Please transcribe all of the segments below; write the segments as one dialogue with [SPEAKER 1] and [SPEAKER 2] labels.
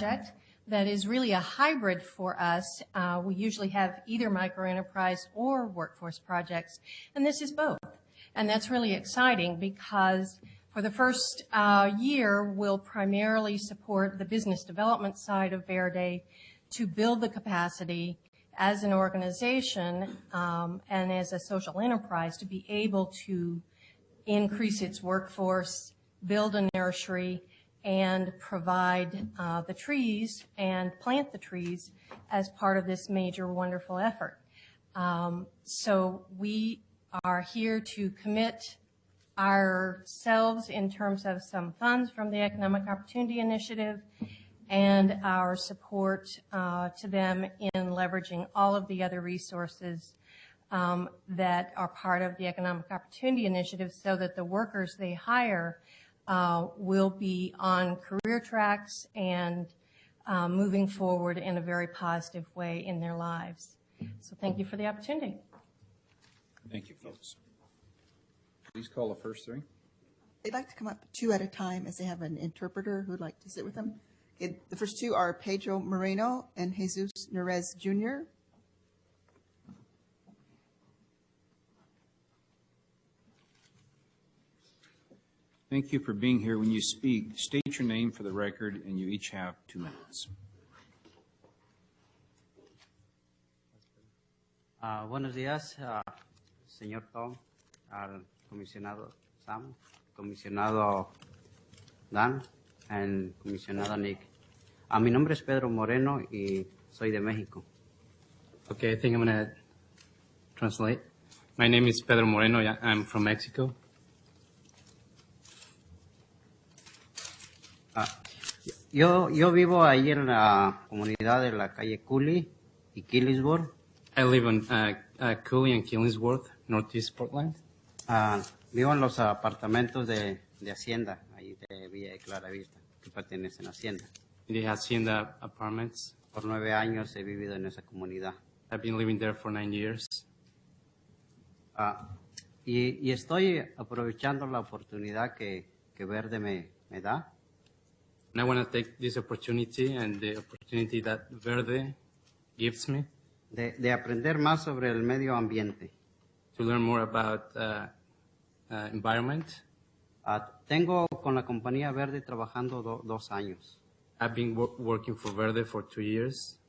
[SPEAKER 1] project that is really a hybrid for us. Uh, we usually have either microenterprise or workforce projects, and this is both. And that's really exciting because for the first uh, year, we'll primarily support the business development side of Verde to build the capacity as an organization um, and as a social enterprise to be able to increase its workforce, build a nursery, and provide uh, the trees and plant the trees as part of this major wonderful effort. Um, so we are here to commit ourselves in terms of some funds from the Economic Opportunity Initiative and our support uh, to them in leveraging all of the other resources um, that are part of the Economic Opportunity Initiative so that the workers they hire uh, will be on career tracks and uh, moving forward in a very positive way in their lives. So thank you for the opportunity.
[SPEAKER 2] Thank you, folks. Please call the first three.
[SPEAKER 3] They'd like to come up two at a time as they have an interpreter who'd like to sit with them. Okay, The first two are Pedro Moreno and Jesus Nerez Jr.
[SPEAKER 2] Thank you for being here. When you speak, state your name for the record, and you each have two minutes.
[SPEAKER 4] Ah, buenos días, ah, señor Tom, al comisionado Sam, comisionado Dan, y comisionado Nick. Ah, mi nombre es Pedro Moreno y soy de México.
[SPEAKER 5] Okay, I think I'm gonna translate. My name is Pedro Moreno. I- I'm from Mexico.
[SPEAKER 4] Yo, yo vivo ahí en la comunidad de la calle Cooley y Killisburg.
[SPEAKER 5] I live on uh, uh, Cooley and Killingsworth, Northeast Portland.
[SPEAKER 4] Ah, vivo en los apartamentos de, de Hacienda, ahí de Villa de Claravista, que pertenecen a Hacienda.
[SPEAKER 5] They have seen the Hacienda apartments.
[SPEAKER 4] Por nueve años he vivido en esa comunidad.
[SPEAKER 5] I've been living there for nine years.
[SPEAKER 4] Ah, y, y estoy aprovechando la oportunidad que, que Verde me, me da
[SPEAKER 5] And I want to take this opportunity and the opportunity that Verde gives me
[SPEAKER 4] de, de aprender más sobre el medio ambiente.
[SPEAKER 5] to learn more about uh, uh, environment.
[SPEAKER 4] Ah, tengo con la compañía Verde trabajando do- dos años.
[SPEAKER 5] I've been wor- working for Verde for two years.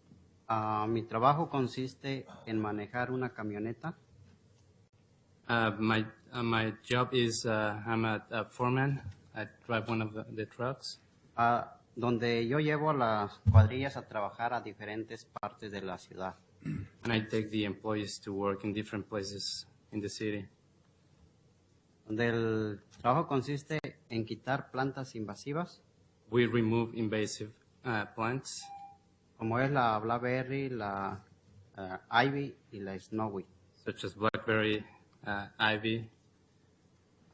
[SPEAKER 4] Ah, mi trabajo consiste en manejar una camioneta
[SPEAKER 5] Uh, my uh, my job is uh, I'm a, a foreman. I drive one of the, the trucks.
[SPEAKER 4] ah, donde yo llevo a las cuadrillas a trabajar a diferentes partes de la ciudad.
[SPEAKER 5] and I take the employees to work in different places in the city.
[SPEAKER 4] Donde el trabajo consiste en quitar plantas invasivas,
[SPEAKER 5] We remove invasive uh, plants,
[SPEAKER 4] como es la Blackberry, la ah, Ivy y la Snowy.
[SPEAKER 5] such as blackberry, uh, ivy,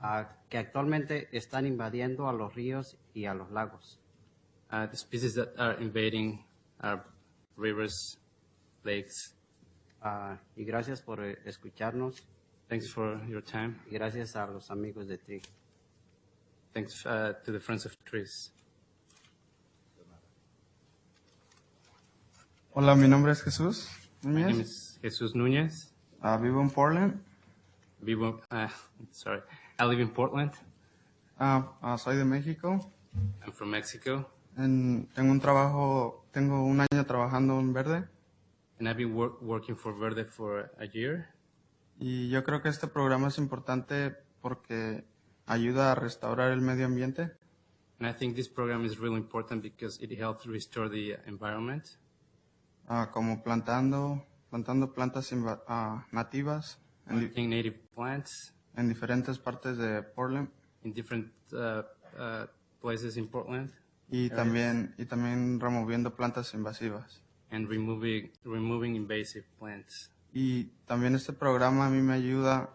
[SPEAKER 4] ah, que actualmente están invadiendo a los ríos y a los lagos.
[SPEAKER 5] uh, the species that are invading our rivers, lakes.
[SPEAKER 4] Ah, y gracias por eh, escucharnos
[SPEAKER 5] Thanks for your time.
[SPEAKER 4] y gracias a los amigos de TRI.
[SPEAKER 5] Thanks uh, to the Friends of Trees.
[SPEAKER 6] Hola, mi nombre es Jesús
[SPEAKER 5] My name
[SPEAKER 6] Núñez.
[SPEAKER 5] is Jesus Nunez.
[SPEAKER 6] Ah, vivo en Portland.
[SPEAKER 5] Vivo, uh, sorry, I live in Portland.
[SPEAKER 6] Ah, ah, soy de México.
[SPEAKER 5] I'm from Mexico,
[SPEAKER 6] En- tengo un trabajo, tengo un año trabajando en verde.
[SPEAKER 5] and I've been wor- working for Verde for a year.
[SPEAKER 6] Y yo creo que este programa es importante porque ayuda a restaurar el medio ambiente.
[SPEAKER 5] And I think this program is really important because it helps restore the environment,
[SPEAKER 6] Ah, como plantando, plantando plantas inva- ah, nativas en, di-
[SPEAKER 5] planting native plants
[SPEAKER 6] en diferentes partes de Portland.
[SPEAKER 5] in different uh, uh, places in Portland,
[SPEAKER 6] Y también, y también removiendo plantas invasivas.
[SPEAKER 5] and removing removing invasive plants.
[SPEAKER 6] Y también este programa a mí me ayuda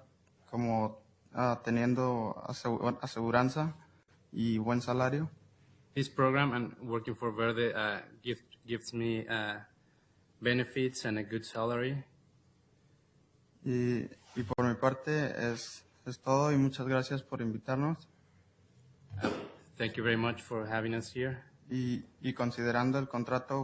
[SPEAKER 6] como ah, teniendo asegu- aseguranza y buen salario.
[SPEAKER 5] This program and working for Verde uh, gives gives me uh, benefits and a good salary.
[SPEAKER 6] Y, y por mi parte es, es todo y muchas gracias por invitarnos
[SPEAKER 5] Thank you very much for having us here.
[SPEAKER 6] y, y considerando el contrato